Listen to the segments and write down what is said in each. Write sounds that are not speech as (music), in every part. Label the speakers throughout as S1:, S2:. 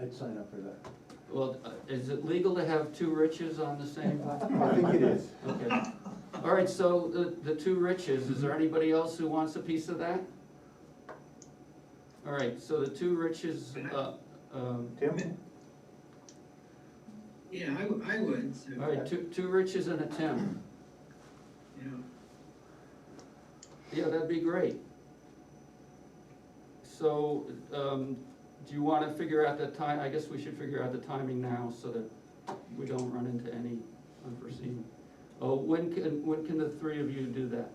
S1: I'd sign up for that.
S2: Well, uh, is it legal to have two riches on
S1: (laughs)
S2: the same?
S1: I think it is.
S2: Okay. All right, so the, the two riches, is there anybody else who wants a piece of that? All right, so the two riches, uh, um,
S1: Tim?
S3: Yeah, I, w- I would, so,
S2: all right, two, two riches and a Tim.
S3: you know,
S2: Yeah, that'd be great. So, um, do you wanna figure out the time, I guess we should figure out the timing now so that we don't run into any unforeseen. Oh, when can, when can the three of you do that?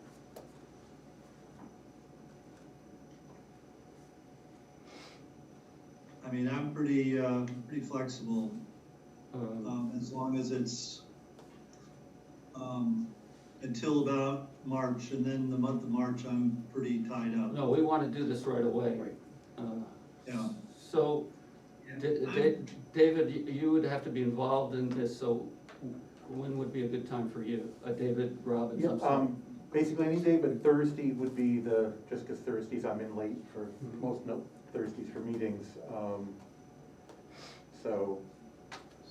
S4: I mean, I'm pretty, uh, pretty flexible,
S2: Um,
S4: um, as long as it's, um, until about March, and then the month of March, I'm pretty tied up,
S2: No, we wanna do this right away.
S1: Right.
S2: Uh,
S4: yeah.
S2: So,
S3: yeah.
S2: Da- Da-
S3: I'm-
S2: David, you- you would have to be involved in this, so when would be a good time for you? Uh, David Robbins,
S5: Yeah,
S2: I'm sorry.
S5: um, basically any day, but Thursday would be the, just because Thursdays I'm in late for
S2: Mhm.
S5: most, no, Thursdays for meetings. um, So,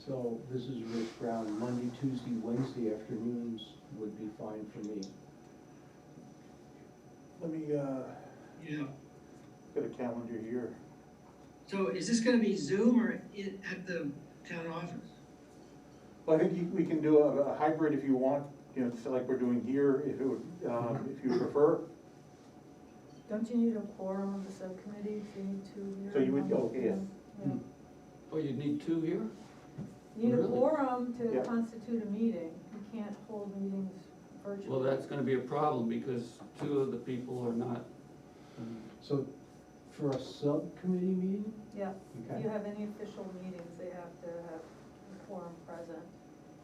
S1: So this is Rich Brown, Monday, Tuesday, Wednesday afternoons would be fine for me.
S5: let me, uh,
S3: Yeah,
S5: get a calendar here.
S3: so is this gonna be Zoom or i- at the town office?
S5: Well, I think you- we can do a a hybrid if you want, you know, just like we're doing here, if it would, um, if you prefer.
S6: Don't you need a quorum of the subcommittee if you need two here?
S5: So you would-
S6: Yeah,
S5: oh, yes.
S6: yeah.
S2: Oh, you'd need two here?
S6: You Need a
S2: Really?
S6: quorum to
S5: Yeah.
S6: constitute a meeting, you can't hold meetings virtually.
S2: Well, that's gonna be a problem because two of the people are not.
S1: Mm-hmm.
S2: um,
S1: So for a subcommittee meeting?
S6: Yeah, if
S1: Okay.
S6: you have any official meetings, they have to have a quorum present,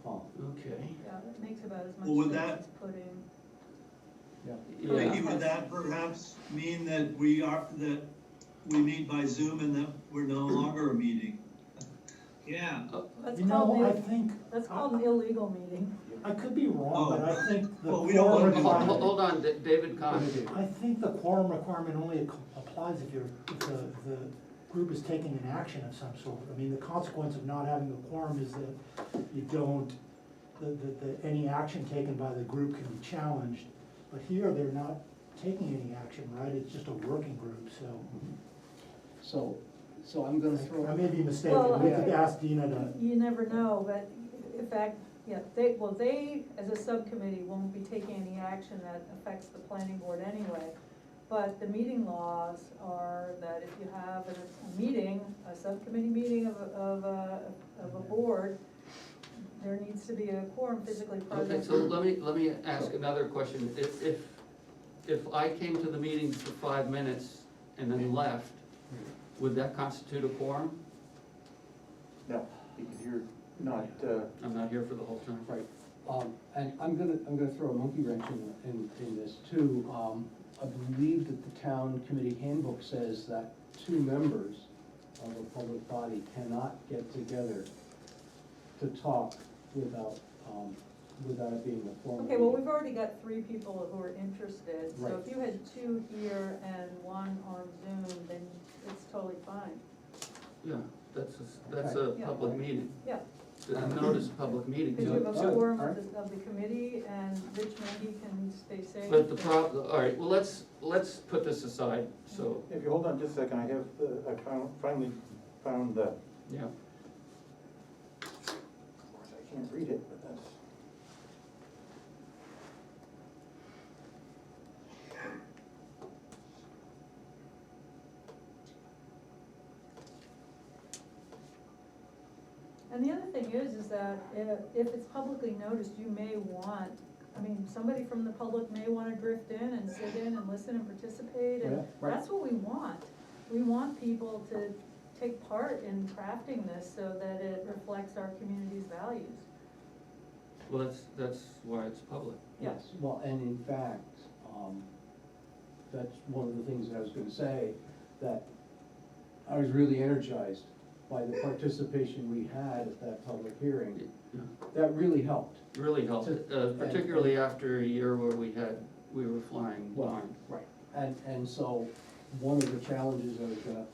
S1: Oh,
S2: Okay.
S6: yeah, it makes about as
S4: Well, would
S6: much
S4: that-
S6: sense as putting,
S1: yeah.
S2: Yeah,
S4: Vicky, would that perhaps mean that we are, that we meet by Zoom and that we're no longer a meeting?
S3: Yeah,
S6: that's
S7: You
S6: called,
S7: know, I
S6: an-
S7: think,
S6: that's called an illegal meeting.
S7: I could be wrong, but I think the
S4: Oh. Well, we don't wanna
S7: quorum
S4: do
S2: Hold,
S4: that.
S7: requirement,
S2: hold on, Da- David Conn.
S7: I think the quorum requirement only ac- applies if you're, if the, the group is taking an action of some sort. I mean, the consequence of not having a quorum is that you don't, that, that, that any action taken by the group can be challenged. But here, they're not taking any action, right? It's just a working group, so.
S1: So, so I'm gonna throw.
S7: I may be mistaken,
S6: Well,
S7: we
S6: I-
S7: could ask Dina to,
S6: You never know, but in fact, yeah, they, well, they, as a subcommittee, won't be taking any action that affects the planning board anyway. But the meeting laws are that if you have a, a meeting, a subcommittee meeting of, a- of a, of a board, there needs to be a quorum physically
S2: Okay,
S6: present.
S2: so let me, let me ask another question. If, if, if I came to the meeting for five minutes and then left, would that constitute a quorum?
S5: No, because you're not, uh,
S2: I'm not here for the whole term.
S1: Right, um, and I'm gonna, I'm gonna throw a monkey wrench in, in, in this too. Um, I believe that the town committee handbook says that two members of a public body cannot get together to talk without, um, without it being a formal.
S6: Okay, well, we've already got three people who are interested, so
S1: Right.
S6: if you had two here and one on Zoom, then it's totally fine.
S2: Yeah, that's, a- that's a
S6: Yeah.
S2: public meeting.
S6: Yeah.
S2: I noticed a public meeting
S6: Because you
S2: too.
S6: have
S1: Yeah.
S6: a quorum
S1: Alright.
S6: of the, of the committee and Rich Mendy can stay safe.
S2: But the prob, all right, well, let's, let's put this aside, so,
S5: if you hold on just a second, I have, the- I found, finally found the,
S2: yeah.
S5: of course, I can't read it, but that's.
S6: And the other thing is, is that if, if it's publicly noticed, you may want, I mean, somebody from the public may wanna drift in and sit in and listen and participate
S1: Yeah,
S6: and
S1: right.
S6: that's what we want. We want people to take part in crafting this so that it reflects our community's values.
S2: Well, that's, that's why it's public.
S6: Yeah.
S1: Yes, well, and in fact, um, that's one of the things that I was gonna say, that I was really energized by the participation we had at that public hearing.
S2: Yeah.
S1: That really helped.
S2: Really helped, uh,
S1: To-
S2: particularly after a year where we had, we were flying blind.
S1: Right. And, and so, one of the challenges I was gonna